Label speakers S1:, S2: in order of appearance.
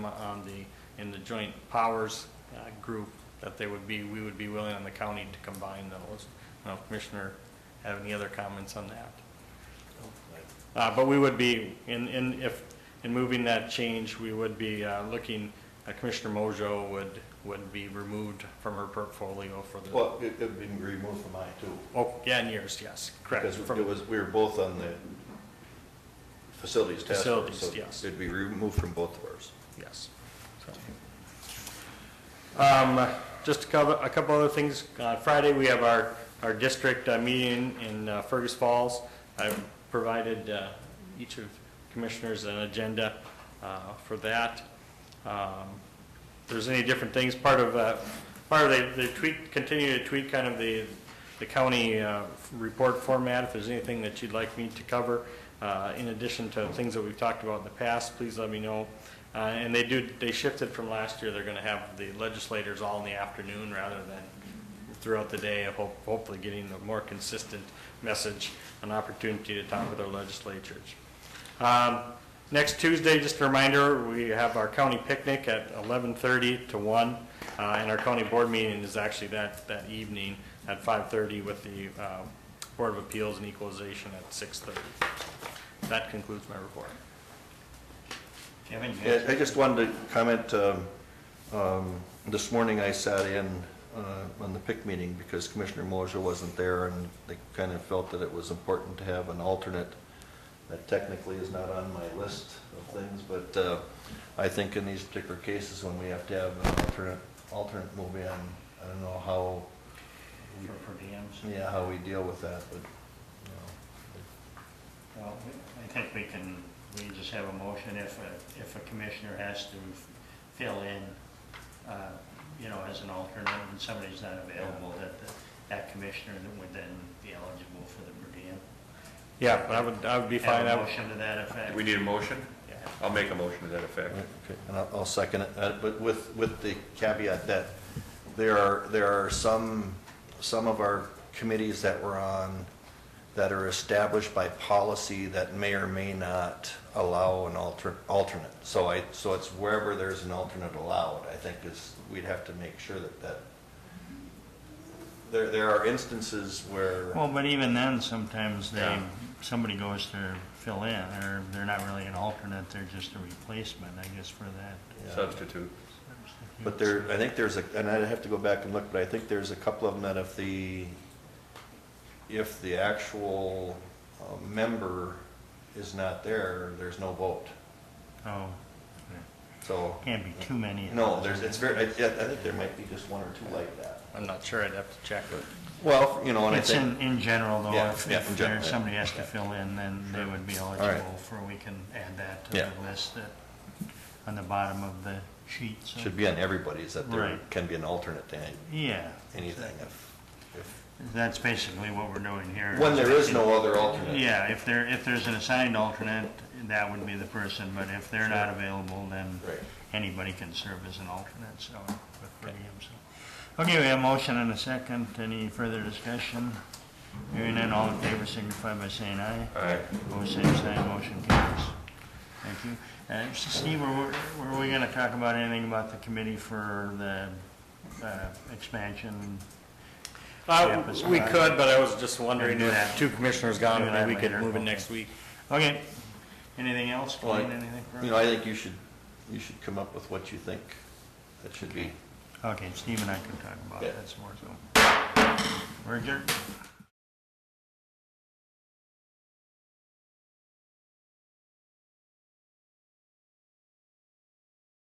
S1: on the, in the joint powers uh, group, that they would be, we would be willing on the county to combine those. Now, Commissioner, have any other comments on that? Uh, But we would be, in, in, if, in moving that change, we would be uh, looking, uh, Commissioner Mojo would, would be removed from her portfolio for the,
S2: Well, it, it'd been removed from mine too.
S1: oh, yeah, and yours, yes, correct.
S2: Because
S1: From-
S2: it was, we were both on the facilities task force. so
S1: Facilities, yes.
S2: It'd be removed from both of ours.
S1: Yes. So. Um, Just a couple, a couple other things. Uh, Friday, we have our, our district uh, meeting in uh, Fergus Falls. I've provided uh, each of commissioners an agenda uh, for that. Um, there's any different things, part of, uh, part of, they- they tweak, continue to tweak kind of the, the county uh, report format, if there's anything that you'd like me to cover, uh, in addition to things that we've talked about in the past, please let me know. Uh, And they do, they shifted from last year, they're going to have the legislators all in the afternoon rather than throughout the day, of hope- hopefully getting a more consistent message, an opportunity to talk with our legislatures. Um, Next Tuesday, just a reminder, we have our county picnic at 11:30 to 1, uh, and our county board meeting is actually that, that evening at 5:30 with the uh, Board of Appeals and Equalization at 6:30. That concludes my report.
S3: Kevin, you
S2: Yeah,
S3: have-
S2: I just wanted to comment, um, um, this morning I sat in uh, on the PIC meeting because Commissioner Moser wasn't there and they kind of felt that it was important to have an alternate that technically is not on my list of things, but uh, I think in these particular cases when we have to have an alternate, alternate move in, I don't know how, we-
S3: for per diems.
S2: yeah, how we deal with that, but, you know,
S3: Well, I think we can, we just have a motion if a, if a commissioner has to fill in, uh, you know, as an alternate and somebody's not available, that, the- that commissioner that would then be eligible for the per diem.
S1: Yeah, but I would, I would be fine. I
S3: Have a
S1: would-
S3: motion to that effect.
S4: Do we need a motion?
S3: Yeah.
S4: I'll make a motion to that effect.
S2: Okay, And I'll, I'll second it, uh, but with, with the caveat that there are, there are some, some of our committees that we're on that are established by policy that may or may not allow an alter, alternate. So I, so it's wherever there's an alternate allowed, I think is, we'd have to make sure that that, there, there are instances where,
S3: Well, but even then, sometimes they,
S2: Yeah.
S3: somebody goes to fill in, or they're not really an alternate, they're just a replacement, I guess, for that.
S2: Yeah.
S4: Substitute.
S2: But there, I think there's a, and I'd have to go back and look, but I think there's a couple of them that if the, if the actual uh, member is not there, there's no vote.
S3: Oh,
S2: So,
S3: can't be too many. of
S2: no,
S3: those.
S2: there's, it's very, I, I think there might be just one or two like that.
S1: I'm not sure, I'd have to check.
S2: Well, you know, and I
S3: It's in,
S2: think,
S3: in general though,
S2: Yeah,
S3: if
S2: yeah,
S3: if
S2: in general,
S3: there's
S2: yeah.
S3: somebody has to fill in, then they would be eligible for, we can add that to
S2: Yeah.
S3: the list that, on the bottom of the sheet, so.
S2: should be on everybody's, that there
S3: Right.
S2: can be an alternate to any-
S3: Yeah.
S2: anything if, if,
S3: That's basically what we're doing here.
S2: when there is no other alternate.
S3: Yeah, if there, if there's an assigned alternate, that would be the person, but if they're not available, then
S2: Right.
S3: anybody can serve as an alternate, so, with per diem, so. Okay, we have a motion and a second, any further discussion? Hearing none, all in favor signify by saying aye.
S4: Aye.
S3: Opposed, same sign, motion carries. Thank you. Uh, Steve, were, were we gonna talk about anything about the committee for the, uh, expansion?
S1: Uh,
S3: Yeah,
S1: We
S3: but-
S1: could, but I was just wondering
S3: Do that.
S1: if two commissioners gone,
S3: Do
S1: maybe
S3: that
S1: we could
S3: later,
S1: move it
S3: okay.
S1: next week.
S3: Okay, anything else,
S2: Well, I-
S3: Colleen, anything? for us?
S2: You know, I think you should, you should come up with what you think that should be.
S3: Okay, Steve and I can talk about
S2: Yeah.
S3: that some more, so. We're adjourned.